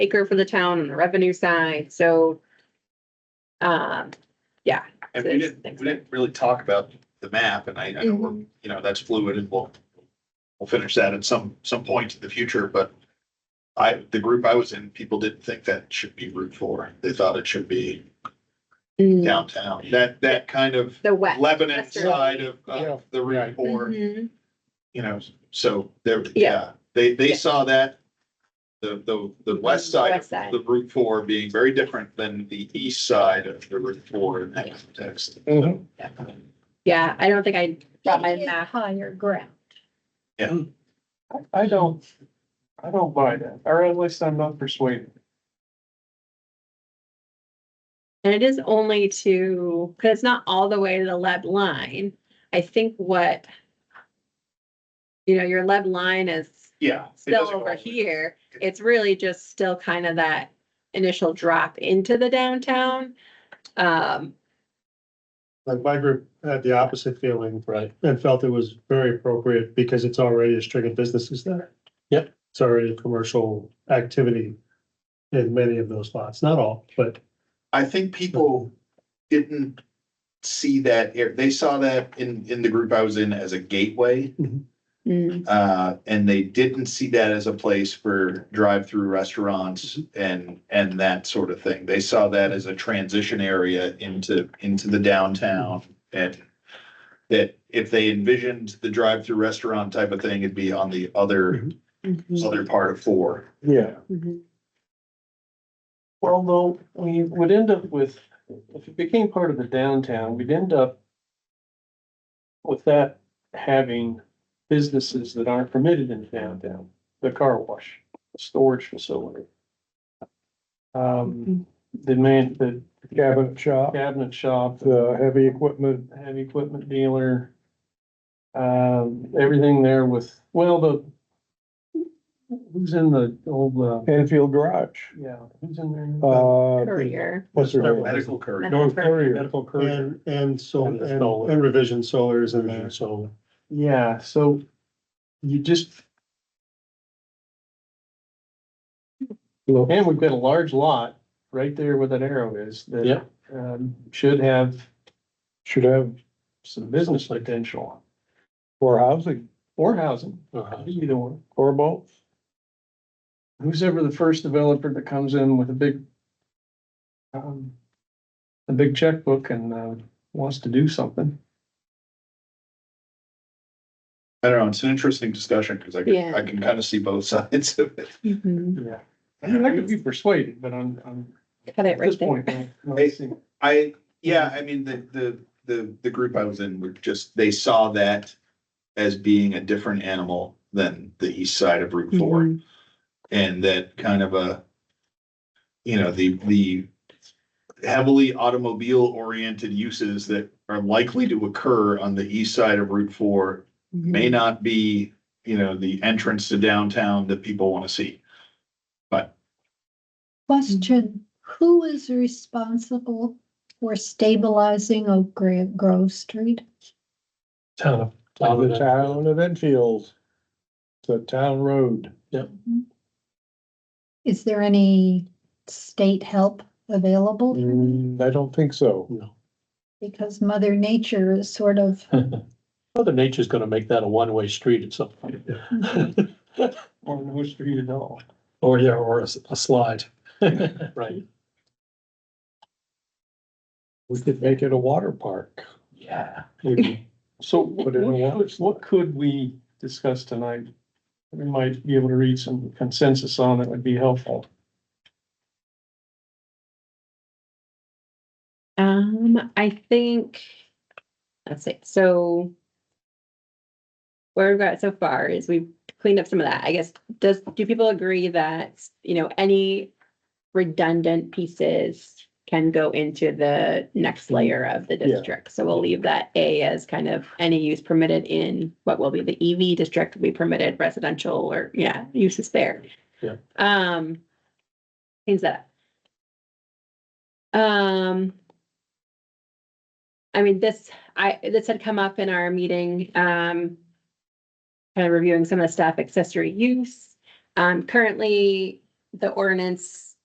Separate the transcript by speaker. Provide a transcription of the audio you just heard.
Speaker 1: acre for the town on the revenue side, so. Um, yeah,
Speaker 2: And we didn't, we didn't really talk about the map and I, I
Speaker 1: Mm-hmm.
Speaker 2: know we're, you know, that's fluid and we'll, we'll finish that at some, some point in the future, but I, the group I was in, people didn't think that should be Route Four. They thought it should be
Speaker 1: Mm,
Speaker 2: downtown. That, that kind of
Speaker 1: the west.
Speaker 2: Lebanon
Speaker 1: western.
Speaker 2: side of,
Speaker 3: Yeah.
Speaker 2: of the Route Four,
Speaker 1: Mhm.
Speaker 2: you know, so there,
Speaker 1: Yeah.
Speaker 2: yeah, they, they
Speaker 1: Yeah. Mm-hmm.
Speaker 2: saw that the, the, the west side
Speaker 1: West
Speaker 2: of
Speaker 1: side.
Speaker 2: the Route Four being very different than the east side of the Route Four in that context.
Speaker 3: Mhm.
Speaker 1: Yeah, I don't think I brought my
Speaker 4: It is
Speaker 1: map.
Speaker 4: Higher ground.
Speaker 1: Mm-hmm.
Speaker 3: I- I don't, I don't buy that, or at least I'm not persuaded.
Speaker 1: And it is only to, because it's not all the way to the lead line. I think what. You know, your lead line is
Speaker 2: Yeah. it
Speaker 1: still
Speaker 2: doesn't go
Speaker 1: over
Speaker 2: all the way.
Speaker 1: here. It's really just still kind of that initial drop into the downtown. Um,
Speaker 5: Like my group had the opposite feeling. Right. And felt it was very appropriate because it's already a string of businesses there. Yep. It's already a commercial activity in many of those lots, not all, but
Speaker 2: I think people didn't see that, ar- they saw that in, in the group I was in as a gateway.
Speaker 4: Mm-hmm.
Speaker 1: mm,
Speaker 2: Uh, and they didn't see that as a place for drive-through restaurants
Speaker 1: Mm-hmm.
Speaker 2: and, and that sort of thing. They saw that as a transition area into, into the downtown. And that if they envisioned the drive-through restaurant type of thing, it'd be on the other,
Speaker 1: mhm,
Speaker 2: other part of four.
Speaker 3: Yeah.
Speaker 4: Mm-hmm.
Speaker 1: mhm.
Speaker 3: Well, though, we would end up with, if it became part of the downtown, we'd end up with that having businesses that aren't permitted in downtown, the car wash, the storage facility. Um, the man, the
Speaker 6: cabinet shop,
Speaker 3: cabinet shop, the
Speaker 6: the heavy equipment,
Speaker 3: heavy equipment dealer. Um, everything there with, well, the who's in the old, uh,
Speaker 6: Enfield Garage,
Speaker 3: yeah, who's in there?
Speaker 6: uh,
Speaker 1: Courier.
Speaker 6: what's their name?
Speaker 2: Medical courier.
Speaker 6: North Courier.
Speaker 3: Medical courier.
Speaker 5: and, and so,
Speaker 6: And the
Speaker 5: and
Speaker 6: solar.
Speaker 5: and revision solar is in there, so.
Speaker 3: Yeah, so you just, and we've got a large lot right there where that arrow is that
Speaker 5: Yeah.
Speaker 3: um, should have
Speaker 6: Should have
Speaker 3: some business potential
Speaker 6: for housing
Speaker 3: or housing,
Speaker 5: uh,
Speaker 3: either one.
Speaker 6: or both.
Speaker 3: Who's ever the first developer that comes in with a big um, a big checkbook and uh, wants to do something.
Speaker 2: I don't know, it's an interesting discussion because I can,
Speaker 1: Yeah.
Speaker 2: I can kind of see both sides of it.
Speaker 1: Mhm.
Speaker 3: Yeah. I mean, I could be persuaded, but I'm, I'm
Speaker 1: Cut it
Speaker 3: at
Speaker 1: right
Speaker 3: this
Speaker 1: there.
Speaker 3: point. I'm not seeing-
Speaker 2: I, yeah, I mean, the, the, the, the group I was in were just, they saw that as being a different animal than the east side of Route Four.
Speaker 1: Mhm.
Speaker 2: And that kind of a, you know, the, the heavily automobile oriented uses that are likely to occur on the east side of Route Four may not be, you know, the entrance to downtown that people want to see.
Speaker 4: Question, who is responsible for stabilizing Oak Gro- Grove Street?
Speaker 5: Town of.
Speaker 6: The town of Enfield, the town road.
Speaker 4: Is there any state help available?
Speaker 3: Mm-hmm.
Speaker 1: Mm-hmm.
Speaker 6: Mm, I don't think so.
Speaker 5: No.
Speaker 4: Because Mother Nature is sort of,
Speaker 5: Mother Nature's gonna make that a one-way street at some point,
Speaker 3: Or no street at all.
Speaker 5: or yeah, or a, a slide. Right.
Speaker 6: We could make it a water park.
Speaker 5: Yeah.
Speaker 6: Maybe.
Speaker 3: So what,
Speaker 6: Put in a
Speaker 3: what
Speaker 6: water
Speaker 3: could- what could we discuss tonight? We might be able to read some consensus on that would be helpful.
Speaker 1: Um, I think, let's see, so. Where we've got so far is we've cleaned up some of that, I guess, does, do people agree that, you know, any redundant pieces can go into the next layer of the
Speaker 6: Mm-hmm. Yeah.
Speaker 1: district? So we'll leave that A as kind of any use permitted in what will be the EV district will be permitted residential or, yeah, uses there.
Speaker 6: Yeah.
Speaker 1: Um, things that. up. Um. I mean, this, I, this had come up in our meeting, um. Kind of reviewing some of the stuff, accessory use. Um, currently, the ordinance